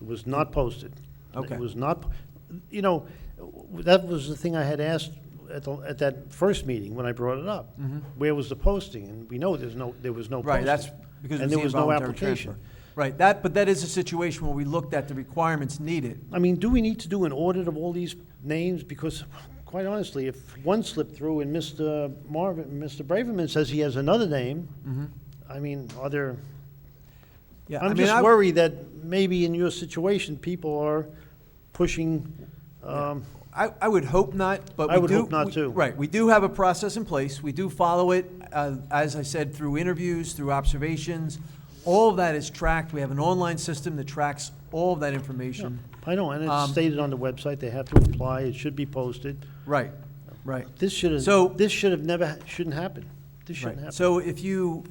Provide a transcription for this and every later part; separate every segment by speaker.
Speaker 1: It was not posted.
Speaker 2: Okay.
Speaker 1: It was not, you know, that was the thing I had asked at, the- at that first meeting when I brought it up. Where was the posting? And we know there's no, there was no posting.
Speaker 2: Mm-hmm. Right, that's because it
Speaker 1: And
Speaker 2: was
Speaker 1: there
Speaker 2: the
Speaker 1: was no
Speaker 2: involuntary
Speaker 1: application.
Speaker 2: transfer. Right, that, but that is a situation where we looked at the requirements needed.
Speaker 1: I mean, do we need to do an audit of all these names? Because quite honestly, if one slipped through and Mr. Marvin, Mr. Braverman says he has another name, I mean, are there,
Speaker 2: Mm-hmm. Yeah, I
Speaker 1: I'm
Speaker 2: mean,
Speaker 1: just
Speaker 2: I-
Speaker 1: worried that maybe in your situation, people are pushing, um,
Speaker 2: I, I would hope not, but we
Speaker 1: I
Speaker 2: do.
Speaker 1: would hope not,
Speaker 2: we-
Speaker 1: too.
Speaker 2: Right, we do have a process in place, we do follow it, uh, as I said, through interviews, through observations. All of that is tracked, we have an online system that tracks all of that information.
Speaker 1: I know, and
Speaker 2: Um,
Speaker 1: it's stated on the website, they have to apply, it should be posted.
Speaker 2: Right, right.
Speaker 1: This should
Speaker 2: So-
Speaker 1: have, this should have never, ha- shouldn't happen. This
Speaker 2: Right.
Speaker 1: shouldn't happen.
Speaker 2: So if you,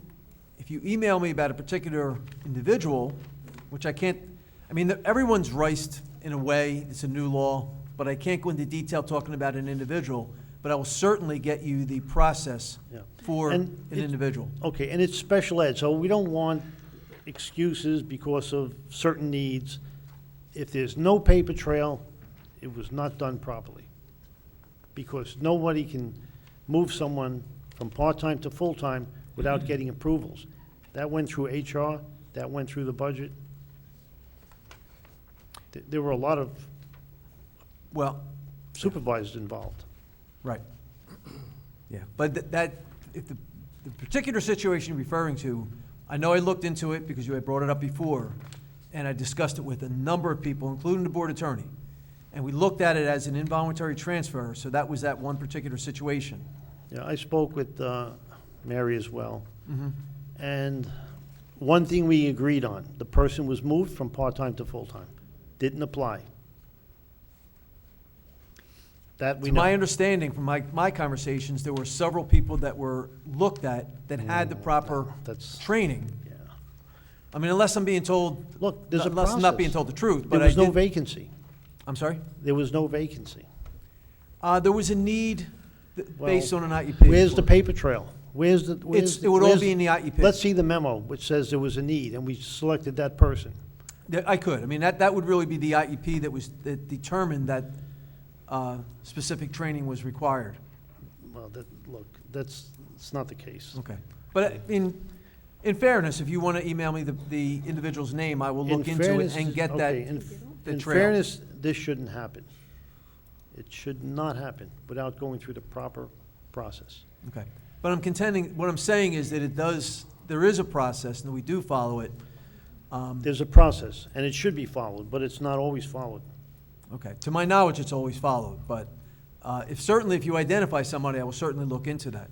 Speaker 2: if you email me about a particular individual, which I can't, I mean, everyone's riced in a way, it's a new law, but I can't go into detail talking about an individual, but I will certainly get you the process
Speaker 1: Yeah.
Speaker 2: for
Speaker 1: And
Speaker 2: an
Speaker 1: it-
Speaker 2: individual.
Speaker 1: Okay, and it's special ed, so we don't want excuses because of certain needs. If there's no paper trail, it was not done properly. Because nobody can move someone from part-time to full-time
Speaker 2: Mm-hmm.
Speaker 1: without getting approvals. That went through HR, that went through the budget. Th- There were a lot of
Speaker 2: Well,
Speaker 1: supervisors involved.
Speaker 2: right. Yeah, but th- that, if the, the particular situation you're referring to, I know I looked into it because you had brought it up before, and I discussed it with a number of people, including the board attorney. And we looked at it as an involuntary transfer, so that was that one particular situation.
Speaker 1: Yeah, I spoke with uh, Mary as well.
Speaker 2: Mm-hmm.
Speaker 1: And one thing we agreed on, the person was moved from part-time to full-time, didn't apply. That we
Speaker 2: To my
Speaker 1: know.
Speaker 2: understanding from my, my conversations, there were several people that were looked at that had the proper
Speaker 1: That's,
Speaker 2: training.
Speaker 1: yeah.
Speaker 2: I mean, unless I'm being told,
Speaker 1: Look, there's a
Speaker 2: unless I'm not being
Speaker 1: process.
Speaker 2: told the truth,
Speaker 1: There
Speaker 2: but I
Speaker 1: was no
Speaker 2: did,
Speaker 1: vacancy.
Speaker 2: I'm sorry?
Speaker 1: There was no vacancy.
Speaker 2: Uh, there was a need th-
Speaker 1: Well,
Speaker 2: based on an IEP.
Speaker 1: Where's the paper trail? Where's the, where's?
Speaker 2: It's,
Speaker 1: the-
Speaker 2: it would all
Speaker 1: where's
Speaker 2: be in the E IEP.
Speaker 1: Let's see the memo, which says there was a need, and we selected that person.
Speaker 2: That- I could, I mean, that, that would really be the IEP that was, that determined that, uh, specific training was required.
Speaker 1: Well, that, look, that's, it's not the case.
Speaker 2: Okay. But uh, in, in fairness, if you want to email me the, the individual's name, I will
Speaker 1: In
Speaker 2: look into it
Speaker 1: fairness-
Speaker 2: and get
Speaker 1: okay, in
Speaker 2: that,
Speaker 1: f-
Speaker 2: the
Speaker 1: In
Speaker 2: trail.
Speaker 1: fairness, this shouldn't happen. It should not happen without going through the proper process.
Speaker 2: okay. But I'm contending, what I'm saying is that it does, there is a process, and we do follow it. Um,
Speaker 1: There's a process, and it should be followed, but it's not always followed.
Speaker 2: Okay, to my knowledge, it's always followed, but, uh, if, certainly if you identify somebody, I will certainly look into that.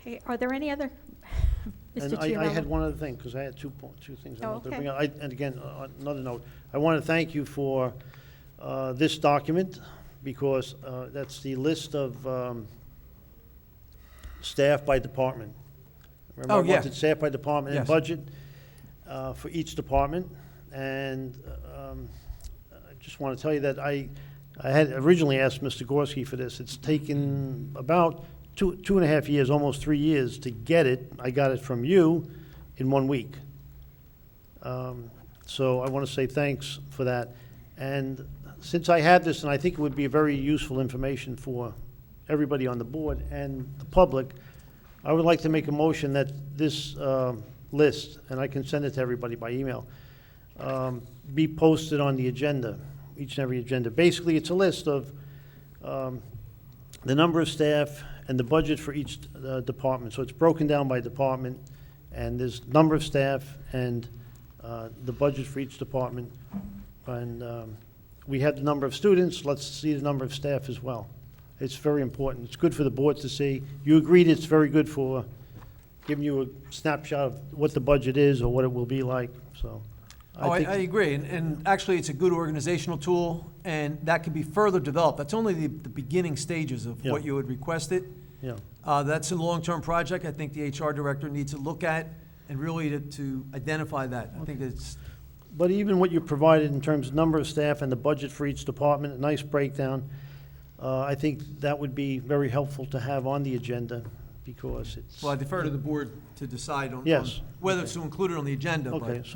Speaker 3: Okay, are there any other, Mr.
Speaker 1: And I, I had
Speaker 3: Chiarello?
Speaker 1: one other thing, because I had two, po- two things I
Speaker 3: Oh,
Speaker 1: wanted to
Speaker 3: okay.
Speaker 1: bring up. I- And again, uh, another note, I want to thank you for uh, this document, because uh, that's the list of um, staff by department.
Speaker 2: Oh,
Speaker 1: Remember, I
Speaker 2: yeah.
Speaker 1: wanted staff by department and
Speaker 2: Yes.
Speaker 1: budget uh, for each department. And um, I just want to tell you that I, I had originally asked Mr. Gorski for this. It's taken about two, two and a half years, almost three years to get it. I got it from you in one week. Um, So I want to say thanks for that. And since I have this, and I think it would be very useful information for everybody on the board and the public, I would like to make a motion that this um, list, and I can send it to everybody by email, um, be posted on the agenda, each and every agenda. Basically, it's a list of um, the number of staff and the budget for each uh, department. So it's broken down by department, and there's number of staff and uh, the budget for each department. And um, we have the number of students, let's see the number of staff as well. It's very important. It's good for the board to see. You agreed it's very good for giving you a snapshot of what the budget is or what it will be like, so.
Speaker 2: Oh, I,
Speaker 1: think-
Speaker 2: I agree, and, and actually, it's a good organizational tool, and that can be further developed. That's only the, the beginning stages of what
Speaker 1: Yeah.
Speaker 2: you would request it.
Speaker 1: Yeah.
Speaker 2: Uh, that's a long-term project, I think the HR director needs to look at and really to, to identify that. I think it's,
Speaker 1: But even what you provided in terms of number of staff and the budget for each department, a nice breakdown, uh, I think that would be very helpful to have on the agenda because it's,
Speaker 2: Well, I defer to the board to decide on. on
Speaker 1: Yes.
Speaker 2: Whether it's to include it on the agenda, but.
Speaker 1: okay, so